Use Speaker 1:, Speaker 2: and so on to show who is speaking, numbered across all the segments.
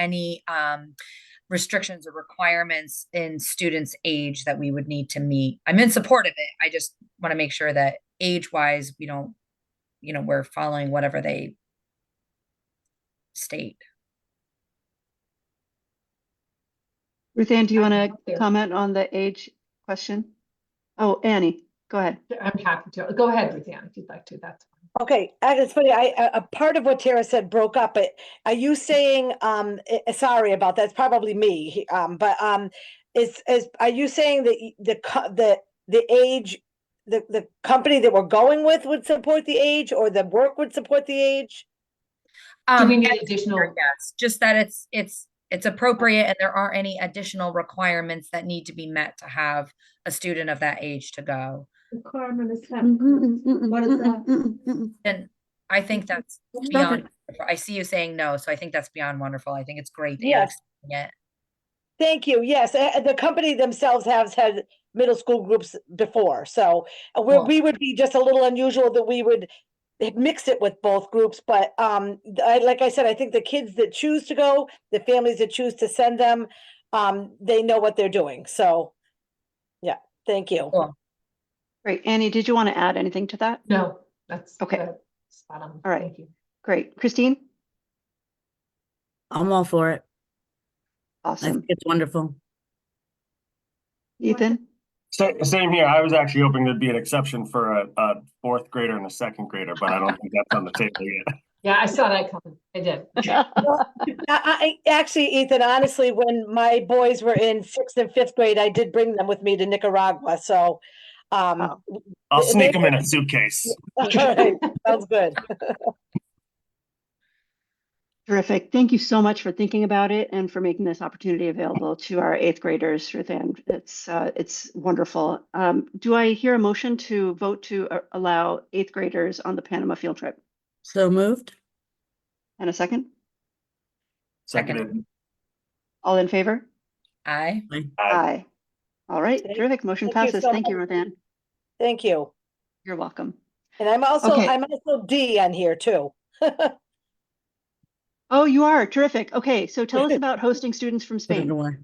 Speaker 1: any um, restrictions or requirements in students' age that we would need to meet. I'm in support of it. I just want to make sure that age-wise, we don't, you know, we're following whatever they state.
Speaker 2: Ruth Ann, do you
Speaker 3: I'm
Speaker 2: want to
Speaker 3: happy.
Speaker 2: comment on the age question? Oh, Annie, go ahead.
Speaker 3: I'm happy to. Go ahead, Ruthanne, if you'd like to. That's fine.
Speaker 4: Okay, and it's funny, I, a, a part of what Tara said broke up, but are you saying, um, eh, eh, sorry about that, it's probably me, he- um, but, um, is, is, are you saying that y- the, co- the, the age, the, the company that we're going with would support the age, or the work would support the age?
Speaker 3: Do
Speaker 1: Um,
Speaker 3: we need
Speaker 1: and-
Speaker 3: additional?
Speaker 1: Yes, just that it's, it's, it's appropriate and there aren't any additional requirements that need to be met to have a student of that age to go.
Speaker 5: Requirement is that.
Speaker 6: Mm-hmm,
Speaker 2: What
Speaker 5: What is that?
Speaker 1: And I think that's
Speaker 5: It's not
Speaker 1: beyond, I see you saying no, so I think that's beyond wonderful. I think it's great. that you're
Speaker 4: Yes.
Speaker 1: accepting it.
Speaker 4: Thank you, yes, eh, eh, the company themselves has had middle school groups before, so uh, we,
Speaker 1: Well-
Speaker 4: we would be just a little unusual that we would eh, mix it with both groups, but, um, th- I, like I said, I think the kids that choose to go, the families that choose to send them, um, they know what they're doing, so, yeah, thank you.
Speaker 1: Cool.
Speaker 2: Great. Annie, did you want to add anything to that?
Speaker 3: No, that's.
Speaker 2: Okay.
Speaker 3: uh, Spot on.
Speaker 2: All right.
Speaker 3: Thank you.
Speaker 2: Great. Christine?
Speaker 6: I'm all for it. I
Speaker 2: Awesome.
Speaker 6: think it's wonderful.
Speaker 2: Ethan?
Speaker 7: Sa- Same here. I was actually hoping there'd be an exception for a, a fourth grader and a second grader, but I don't think that's on the table yet.
Speaker 3: Yeah, I saw that coming. I did.
Speaker 4: I, I actually, Ethan, honestly, when my boys were in sixth and fifth grade, I did bring them with me to Nicaragua, so, um,
Speaker 7: I'll
Speaker 4: They-
Speaker 7: sneak
Speaker 4: they-
Speaker 7: them in a suitcase.
Speaker 4: all right, sounds good.
Speaker 2: Terrific. Thank you so much for thinking about it and for making this opportunity available to our eighth graders, Ruth Ann. It's, uh, it's wonderful. Um, do I hear a motion to vote to uh, allow eighth graders on the Panama field trip?
Speaker 6: So moved?
Speaker 2: And a second?
Speaker 1: Second.
Speaker 7: Seconded.
Speaker 2: All in favor?
Speaker 1: Aye.
Speaker 7: Aye.
Speaker 2: All right.
Speaker 4: Thank-
Speaker 2: Terrific. Motion
Speaker 4: thank you
Speaker 2: passes.
Speaker 4: so
Speaker 2: Thank you,
Speaker 4: much.
Speaker 2: Ruth Ann.
Speaker 4: Thank you.
Speaker 2: You're welcome.
Speaker 4: And I'm also,
Speaker 2: Okay.
Speaker 4: I'm also D on here too.
Speaker 2: Oh, you are terrific. Okay, so tell us about hosting students from
Speaker 6: Put it
Speaker 2: Spain.
Speaker 6: away.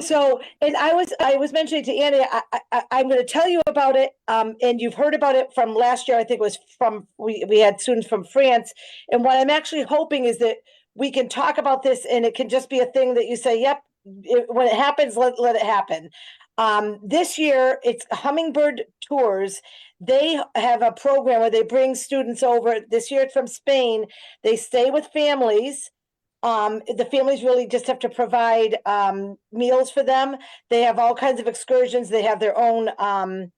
Speaker 4: So, and I was, I was mentioning to Annie, I, I- I, I'm gonna tell you about it. Um, and you've heard about it from last year, I think it was from, we, we had students from France. And what I'm actually hoping is that we can talk about this and it can just be a thing that you say, yep, it- when it happens, let, let it happen. Um, this year, it's Hummingbird Tours. They have a program where they bring students over. This year it's from Spain. They stay with families. Um, the families really just have to provide um meals for them. They have all kinds of excursions. They have their own um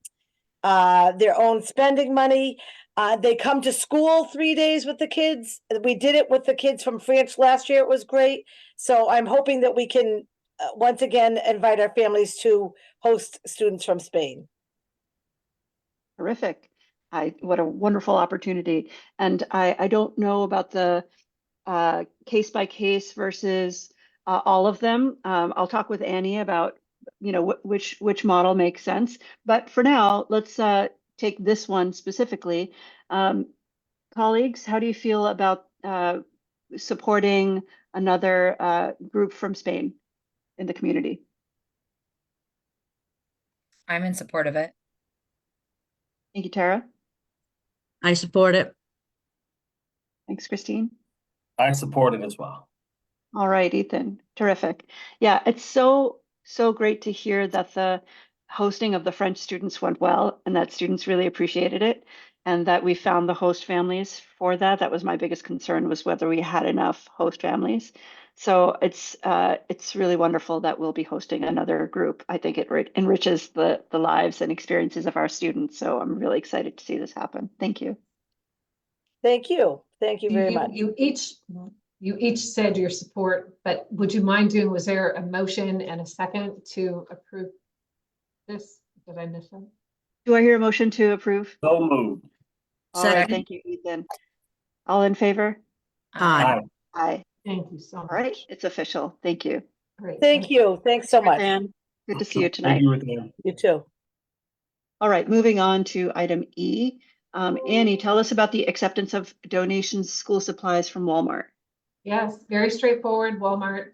Speaker 4: uh their own spending money. Uh, they come to school three days with the kids. We did it with the kids from France last year. It was great. So I'm hoping that we can uh, once again invite our families to host students from Spain.
Speaker 2: Terrific. I, what a wonderful opportunity. And I, I don't know about the uh, case by case versus uh, all of them. Um, I'll talk with Annie about, you know, wh- which, which model makes sense. But for now, let's uh, take this one specifically. Um, colleagues, how do you feel about uh, supporting another uh, group from Spain in the community?
Speaker 1: I'm in support of it.
Speaker 2: Thank you, Tara.
Speaker 6: I support it.
Speaker 2: Thanks, Christine.
Speaker 7: I support it as well.
Speaker 2: All right, Ethan. Terrific. Yeah, it's so, so great to hear that the hosting of the French students went well and that students really appreciated it and that we found the host families for that. That was my biggest concern was whether we had enough host families. So it's uh, it's really wonderful that we'll be hosting another group. I think it re- enriches the the lives and experiences of our students. So I'm really excited to see this happen. Thank you.
Speaker 4: Thank you. Thank you very much.
Speaker 3: You each, you each said your support, but would you mind doing, was there a motion and a second to approve this? Did I miss it?
Speaker 2: Do I hear a motion to approve?
Speaker 7: So moved.
Speaker 2: All right,
Speaker 6: Second.
Speaker 2: thank you, Ethan. All in favor?
Speaker 6: Aye.
Speaker 2: Aye.
Speaker 3: Thank you so much.
Speaker 2: All right, it's official. Thank you.
Speaker 3: Great,
Speaker 4: Thank you. Thanks so much.
Speaker 2: Good to see you
Speaker 7: Thank
Speaker 2: tonight.
Speaker 7: you, Ruth Ann.
Speaker 4: You too.
Speaker 2: All right, moving on to item E. Um, Annie, tell us about the acceptance of donations, school supplies from Walmart.
Speaker 3: Yes, very straightforward. Walmart